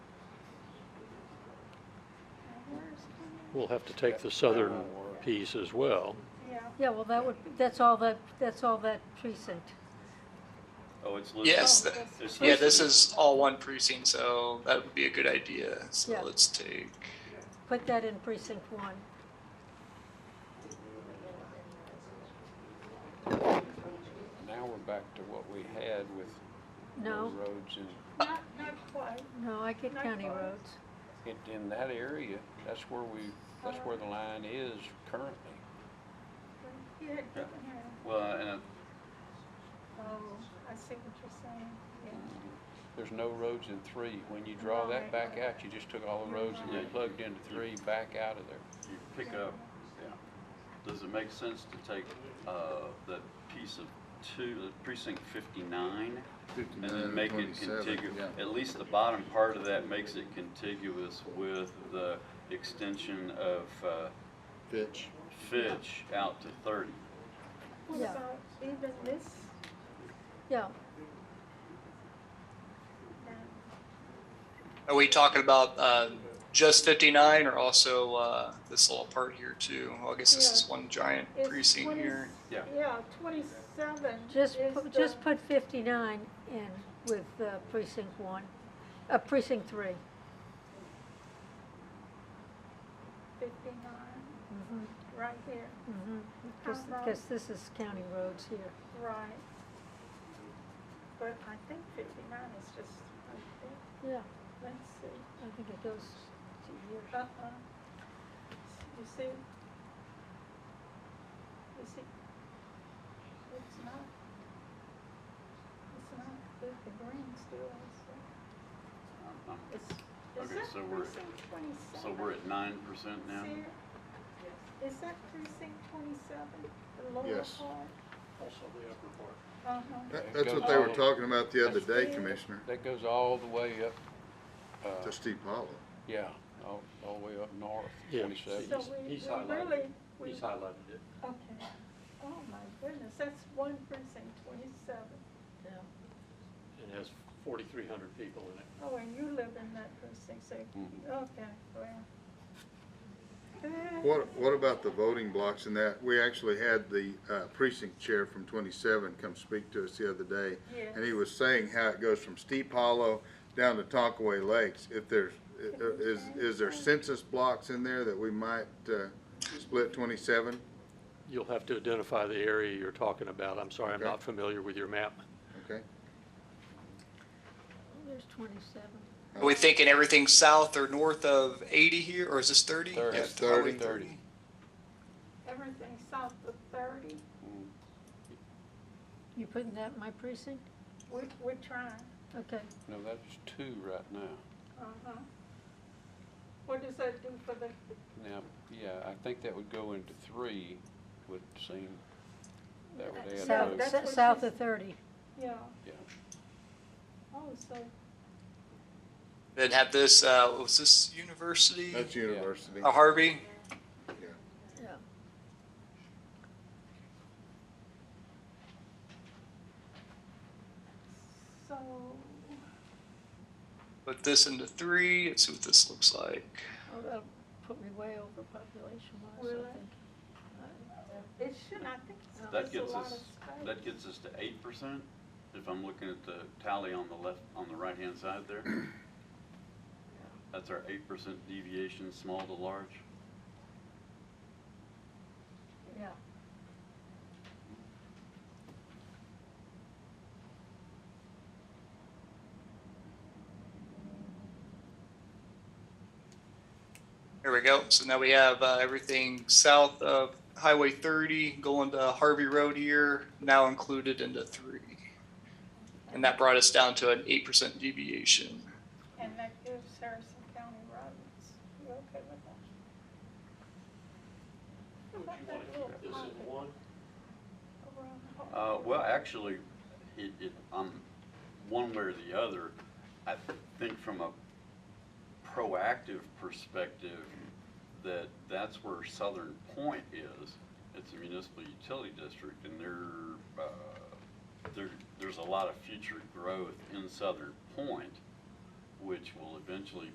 we'll have to take the southern piece as well. Yeah, well, that would, that's all that, that's all that precinct. Oh, it's listed. Yes, th- It's yeah, this listed. is all one precinct, so that would be a good idea. So Yeah. let's take, Put that in precinct one. Now we're back to what we had with no No, roads in, Not, not quite. no, I get county roads. it- in that area. That's where we, that's where the line is currently. You had different hair. Well, and, uh, Oh, I see what you're saying. Yeah. Mm-hmm. There's no roads in three. When you draw that back out, you just took all the roads and they plugged into three back out of there. you pick up, yeah. Does it make sense to take, uh, that piece of two, uh, precinct fifty-nine? And then make it contiguous, at least the bottom part of that makes it contiguous with the extension of, uh, Fitch. Fitch out to thirty. What Yeah. about even this? Yeah, now? are we talking about uh, just 59 or also uh, this little part here too? Well, I guess this is one giant It's precinct 20 here. Yeah. Yeah, twenty-seven is just, pu- the, just put fifty-nine in with uh, precinct one, uh, precinct three. fifty-nine, Mm-hmm. Mhm, right here, mhm. Cause, 'cause this is county roads here. right. But I think fifty-nine is just, right there. Yeah, let's see, I think it goes to here. uh-uh. You see? You see? It's not. It's not, the the green still is, there. Um, it's, is Okay, that so we're- precinct twenty-seven? So we're at nine percent now? Sarah, Is that precinct twenty-seven, the lower part? Yes. Also the upper part. Uh-huh. That- That's what they were talking about the other day, Commissioner, That goes all the way up, uh, to Steep Hollow. yeah, all, all the way up north, Yeah. So twenty-seven. we, he's we really, we, He's okay, highlighted it. oh my goodness, that's one precinct, twenty-seven. It has forty-three hundred people in it. Oh, and you live in that precinct, so, Mhm. Mm-hmm. okay, well. Eh, What, what about the voting blocks and that? We actually had the uh, precinct chair from twenty-seven come speak to us the other day. Yes. And he was saying how it goes from Steep Hollow down to Tonkaway Lakes. If there's, i- i- is, is there census blocks in there that we might, uh, split twenty-seven? You'll have to identify the area you're talking about. I'm sorry, I'm Okay. not familiar with your map. Okay? There's twenty-seven. Are we thinking everything south or north of 80 here, or is this 30? Thirty. Yeah, It's highway 30. Everything south of thirty, You putting that in my precinct? we, we're trying, Okay, No, that's two right now. uh-huh. What does that do for the, Now, yeah, I think that would go into three, would seem, that would add Yeah, south, those. that's what s- south she- of thirty. yeah, Yeah, oh, so, Then have this, uh, what was this university? That's university. Uh, Harvey? Yeah. so, Put this into three. Let's see what this looks like. Oh, that'll put me way over population wise, Will I it? think. it should, I think it's, That it's a gets lot of us- space. That gets us to eight percent, if I'm looking at the tally on the left, on the right-hand side there. That's our eight percent deviation, small to large. Yeah. There we go. So now we have uh, everything south of Highway 30 going to Harvey Road here, now included into three. And that brought us down to an 8% deviation. And that gives Harrison County roads. You okay with that? How Would about you want that little to, is pocket it one? around the hall? Uh, well, actually, it, it, um, one way or the other, I think from a proactive perspective, that that's where Southern Point is. It's a municipal utility district and there, uh, there, there's a lot of future growth in Southern Point, which will eventually